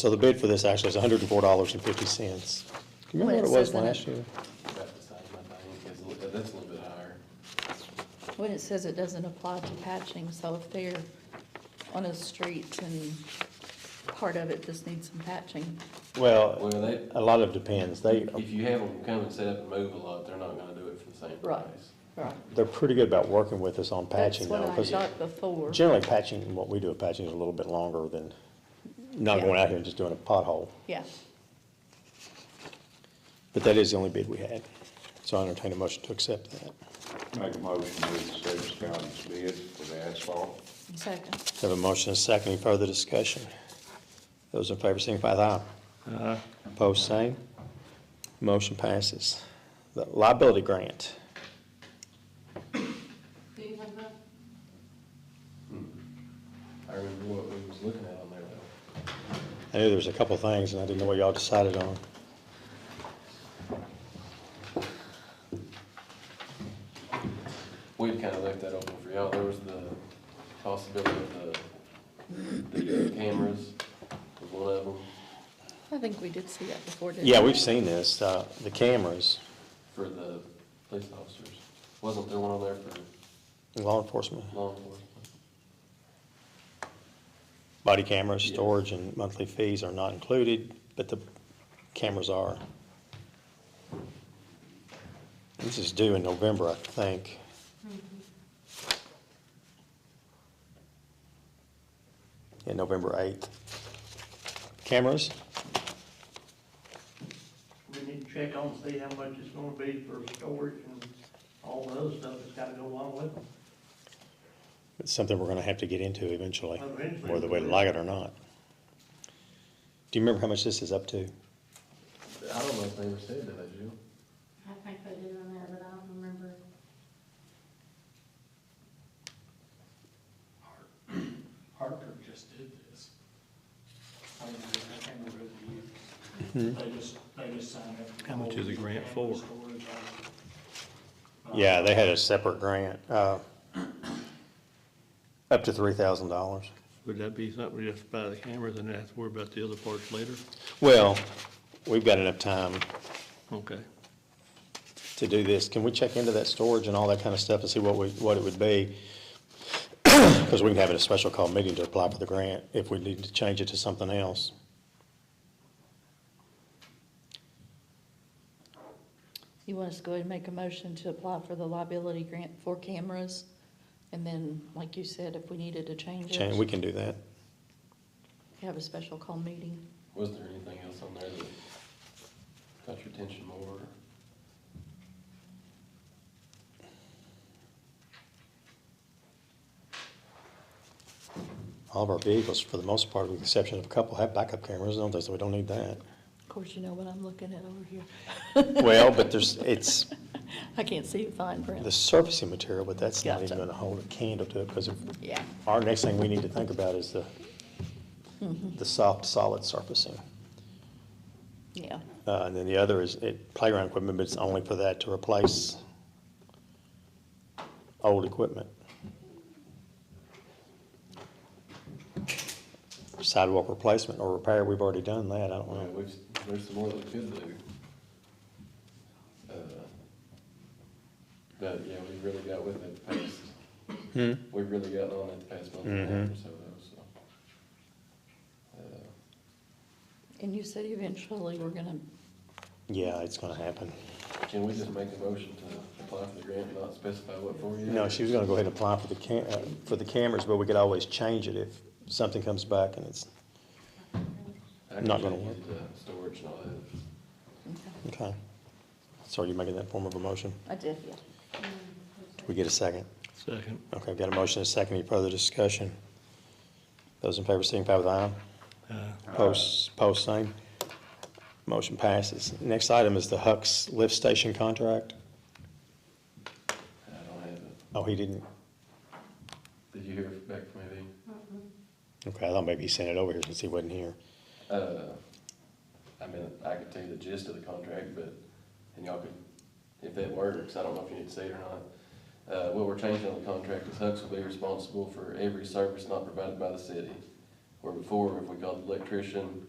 So the bid for this actually is hundred and four dollars and fifty cents. Do you remember What what it it was says in it. last year? About the size of my thing, 'cause a li- that's a little bit higher. When it says it doesn't apply to patching, so if they're on a street and part of it just needs some patching, Well, Well, they, a lot of it depends. They, if you have them come and set up and move a lot, they're not gonna do it for the same Right. price. right? they're pretty good about working with us on patching though. That's 'cause what I thought before. Generally patching, what we do at patching is a little bit longer than not Yeah. going out here and just doing a pothole. Yeah, But that is the only bid we had. So I entertain a motion to accept that. Make a motion to accept Scott's bid for the asphalt. second. Have a motion and a second. Any further discussion? Those in favor signify with aye. Aye. Opposed, same. Motion passes. The Liability grant. I remember what we was looking at on there though. I knew there was a couple of things, and I didn't know what y'all decided on. We had kinda left that open for y'all. There was the possibility of the, the cameras was one of them I think we did see that before, didn't we? Yeah, we've seen this, uh, the cameras, for the police officers. Wasn't there one on there for law enforcement, law enforcement? body cameras, Yes. storage, and monthly fees are not included, but the cameras are. This is due in November, I think. Yeah, November 8th. Cameras? We need to check on, see how much it's gonna be for storage and all the other stuff that's gotta go along with it. It's something we're gonna have to get into eventually, Eventually. whether we like it or not. Do you remember how much this is up to? I don't know if they ever said that, did you? I think they did on there, but I don't remember. Hartford just did this. I don't know, I can't remember the year. They just, they just signed up. Mm-hmm. How much is the grant for? Yeah, they had a separate grant, uh, up to three thousand dollars. Would that be something we just buy the cameras and have to worry about the other parts later? Well, we've got enough time Okay. to do this. Can we check into that storage and all that kind of stuff and see what we, what it would be? Because we can have a special call meeting to apply for the grant if we need to change it to something else. You want us to go ahead and make a motion to apply for the liability grant for cameras? And then, like you said, if we needed to change Chan- we it, can do that. have a special call meeting. Was there anything else on there that caught your attention more? All of our vehicles, for the most part, with the exception of a couple, have backup cameras, don't they? So we don't need that. Of course, you know what I'm looking at over here. Well, but there's, it's I can't see the fine print. the surfacing material, but that's not even Gotcha. gonna hold a candle to it because of Yeah. Our next thing we need to think about is the, the soft, solid surfacing. Yeah, Uh, and then the other is it, playground equipment, but it's only for that to replace old equipment. Sidewalk replacement or repair, we've already done that, I don't Well, know. we've, there's some more that we could do. Uh, But, yeah, we really got with it past, Hmm? we really got on it the past month and a half or so, though, so. Uh, and you said eventually we're gonna, Yeah, it's gonna happen. Can we just make a motion to apply for the grant and not specify what for you? No, she was gonna go ahead and apply for the cam, uh, for the cameras, but we could always change it if something comes back and it's, not gonna work. Storage and all that. okay. So are you making that form of a motion? I did, yeah. We get a second? Second. Okay, I've got a motion and a second. Any further discussion? Those in favor signify with aye. Uh, Post, post same. Motion passes. Next item is the Hucks Lift Station contract. I don't have it. Oh, he didn't, Did you hear back from anything? okay, I thought maybe he sent it over here since he wasn't here. Uh, I mean, I could tell you the gist of the contract, but, and y'all could, if that works, I don't know if you need to say it or not. Uh, what we're changing on the contract is Hucks will be responsible for every service not provided by the city. Where before, if we called the electrician,